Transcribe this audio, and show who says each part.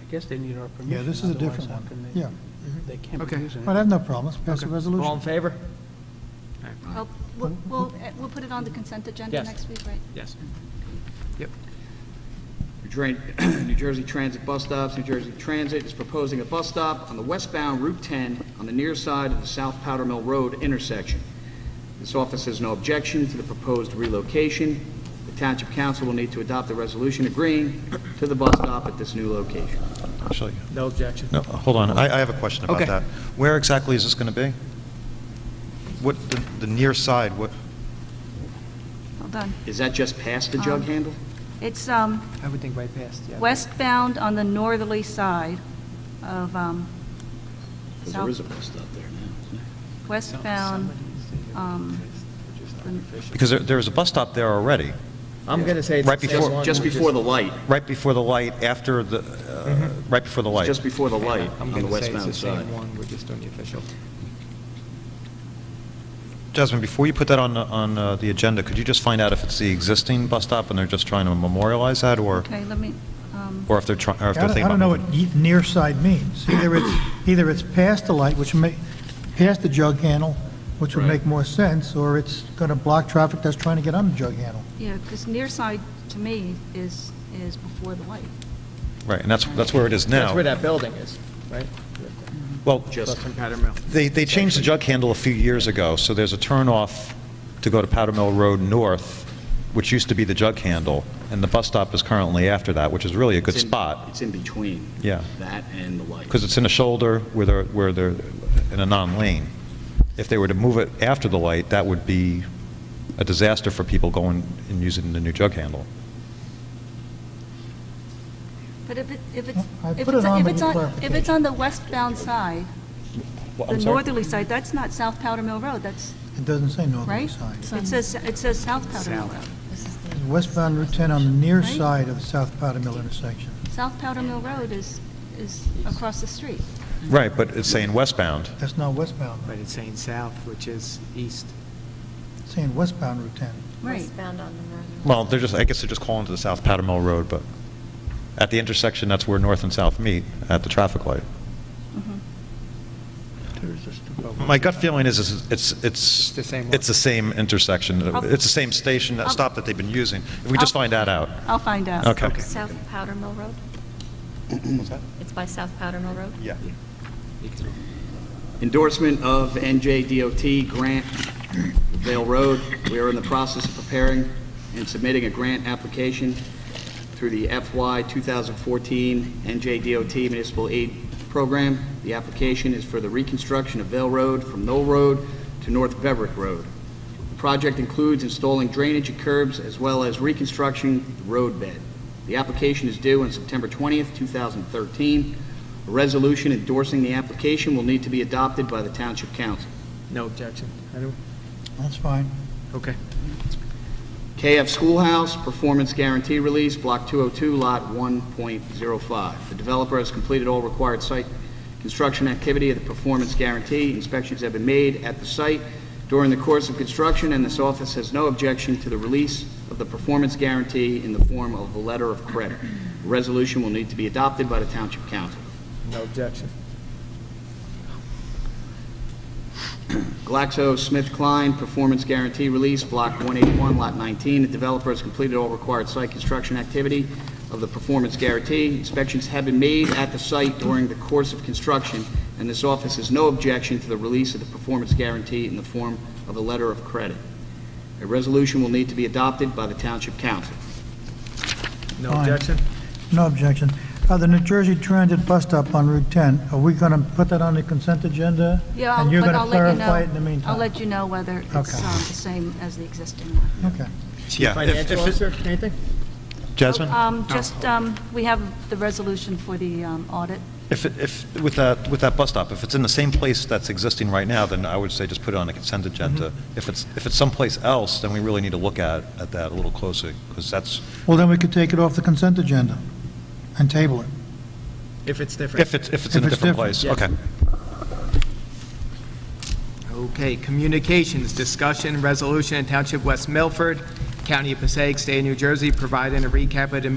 Speaker 1: I guess they need our permission.
Speaker 2: Yeah, this is a
Speaker 1: otherwise
Speaker 2: different
Speaker 1: how
Speaker 2: one.
Speaker 1: can they-
Speaker 2: Yeah.
Speaker 1: They can't be
Speaker 3: Okay.
Speaker 1: using it.
Speaker 2: Well, I have no problems. Pass the
Speaker 3: Okay.
Speaker 2: resolution.
Speaker 3: All in favor?
Speaker 4: Well, Oh, We'll, we'll eh, we'll put it on the consent agenda
Speaker 3: Yes.
Speaker 4: next week, right?
Speaker 3: Yes. Yep.
Speaker 5: New Jer- New Jersey Transit Bus Stops, New Jersey Transit is proposing a bus stop on the westbound Route 10 on the near side of the South Powder Mill Road intersection. This office has no objection to the proposed relocation. The Township Council will need to adopt a resolution agreeing to the bus stop at this new location.
Speaker 6: Actually,
Speaker 3: No objection.
Speaker 6: no, uh, hold on, I, I have a question about
Speaker 3: Okay.
Speaker 6: that. Where exactly is this going to be? What, the, the near side, what,
Speaker 4: Hold on.
Speaker 5: Is that just past the
Speaker 4: Um,
Speaker 5: jug handle?
Speaker 4: It's um,
Speaker 1: I would think right past, yeah.
Speaker 4: westbound on the northerly side of, um,
Speaker 7: Because
Speaker 4: South-
Speaker 7: there is a bus stop there now.
Speaker 4: westbound, um,
Speaker 6: because there, there was a bus stop there already,
Speaker 3: I'm going to say it's
Speaker 6: Right
Speaker 3: the Mm-hmm. same
Speaker 6: before-
Speaker 3: one.
Speaker 5: Just
Speaker 3: we
Speaker 5: before the light,
Speaker 6: right before the light, after the, uh, right before the light.
Speaker 5: just before the light
Speaker 3: I'm
Speaker 5: on
Speaker 3: going
Speaker 5: the
Speaker 3: to say it's the
Speaker 5: westbound side.
Speaker 3: same one, we're just doing the official.
Speaker 6: Jasmine, before you put that on, the- on uh, the agenda, could you just find out if it's the existing bus stop and they're just trying to memorialize that, or,
Speaker 4: okay, let me, um,
Speaker 6: or if they're trying, or if
Speaker 2: I
Speaker 6: they're
Speaker 2: don't-
Speaker 6: thinking
Speaker 2: I
Speaker 6: about...
Speaker 2: don't know
Speaker 6: moving?
Speaker 2: what ye- near side means. Either it's, either it's past the light, which may, past the jug handle, which would
Speaker 5: Right.
Speaker 2: make more sense, or it's going to block traffic that's trying to get on the jug handle.
Speaker 4: yeah, because near side to me is, is before the light.
Speaker 6: Right, and that's, that's where it is
Speaker 3: That's where
Speaker 6: now.
Speaker 3: that building is, right?
Speaker 6: Well,
Speaker 5: Just
Speaker 3: Bus and Powder Mill.
Speaker 6: they, they changed the jug handle a few years ago, so there's a turnoff to go to Powder Mill Road North, which used to be the jug handle, and the bus stop is currently after that, which is really a good
Speaker 5: It's in-
Speaker 6: spot,
Speaker 5: It's in between.
Speaker 6: Yeah.
Speaker 5: That and the light.
Speaker 6: because it's in a shoulder where they're, where they're in a non-lane. If they were to move it after the light, that would be a disaster for people going and using the new jug handle.
Speaker 4: But if it, if it's,
Speaker 2: I
Speaker 4: if
Speaker 2: put it
Speaker 4: it's,
Speaker 2: on
Speaker 4: if
Speaker 2: with
Speaker 4: it's
Speaker 2: your
Speaker 4: on, if it's
Speaker 2: clarification.
Speaker 4: on the westbound side,
Speaker 6: Well,
Speaker 4: the
Speaker 6: I'm sorry?
Speaker 4: northerly side, that's not South Powder Mill Road, that's,
Speaker 2: It doesn't say northerly
Speaker 4: right?
Speaker 2: side.
Speaker 4: It says, it says South Powder Mill Road,
Speaker 2: Westbound Route 10 on the near
Speaker 4: Right.
Speaker 2: side of the South Powder Mill intersection.
Speaker 4: South Powder Mill Road is, is across the street.
Speaker 6: Right, but it's saying westbound.
Speaker 2: That's not westbound,
Speaker 3: But it's saying south, which is east.
Speaker 2: it's saying westbound Route 10.
Speaker 4: Right.
Speaker 8: Westbound on the northern.
Speaker 6: Well, they're just, I guess they're just calling to the South Powder Mill Road, but at the intersection, that's where north and south meet, at the traffic light.
Speaker 4: Mm-hmm.
Speaker 3: Oh,
Speaker 6: My gut feeling is, is it's, it's,
Speaker 3: the same one.
Speaker 6: it's the same intersection,
Speaker 4: I'll-
Speaker 6: it's the same station, that stop that they've been using. If we just
Speaker 4: I'll-
Speaker 6: find that out.
Speaker 4: I'll find out.
Speaker 6: Okay.
Speaker 8: South Powder Mill Road? It's by South Powder Mill Road?
Speaker 6: Yeah.
Speaker 5: Endorsement of NJDOT grant, Vale Road. We are in the process of preparing and submitting a grant application through the FY 2014 NJDOT Municipal Aid Program. The application is for the reconstruction of Vale Road from Knoll Road to North Beverick Road. The project includes installing drainage and curbs as well as reconstructing the road bed. The application is due on September 20th, 2013. A resolution endorsing the application will need to be adopted by the Township Council.
Speaker 3: No objection. I don't-
Speaker 2: That's fine.
Speaker 3: Okay.
Speaker 5: KF Schoolhouse, Performance Guarantee Release, Block 202, Lot 1.05. The developer has completed all required site construction activity of the performance guarantee. Inspections have been made at the site during the course of construction, and this office has no objection to the release of the performance guarantee in the form of a letter of credit. A resolution will need to be adopted by the Township Council.
Speaker 3: No objection.
Speaker 5: GlaxoSmithKline Performance Guarantee Release, Block 181, Lot 19. The developer has completed all required site construction activity of the performance guarantee. Inspections have been made at the site during the course of construction, and this office has no objection to the release of the performance guarantee in the form of a letter of credit. A resolution will need to be adopted by the Township Council.
Speaker 3: No
Speaker 2: Fine.
Speaker 3: objection.
Speaker 2: No objection. Uh, The New Jersey Transit bus stop on Route 10, are we going to put that on the consent agenda?
Speaker 4: Yeah, I'll-
Speaker 2: And you're
Speaker 4: but
Speaker 2: going to
Speaker 4: I'll let you
Speaker 2: clarify it
Speaker 4: know-
Speaker 2: in the meantime?
Speaker 4: I'll let you know whether it's um,
Speaker 2: Okay.
Speaker 4: the same as the existing one.
Speaker 2: Okay.
Speaker 6: Yeah, if-
Speaker 3: Financial
Speaker 6: if it-
Speaker 3: officer, anything?
Speaker 6: Jasmine?
Speaker 4: Um, Just, um, we have the resolution for the um, audit.
Speaker 6: If, it- if, with that, with that bus stop, if it's in the same place that's existing right now, then I would say just put it on a consent agenda. If it's, if it's someplace else, then we really need to look at, at that a little closer, because that's,
Speaker 2: Well, then we could take it off the consent agenda and table it.
Speaker 3: If it's different.
Speaker 6: if it's, if it's in a
Speaker 2: If it's
Speaker 6: different
Speaker 2: different.
Speaker 6: place.
Speaker 3: Yes.
Speaker 6: Okay.
Speaker 3: Okay, communications, discussion, resolution in Township West Milford, County of Passaic, State of New Jersey, providing a recap of the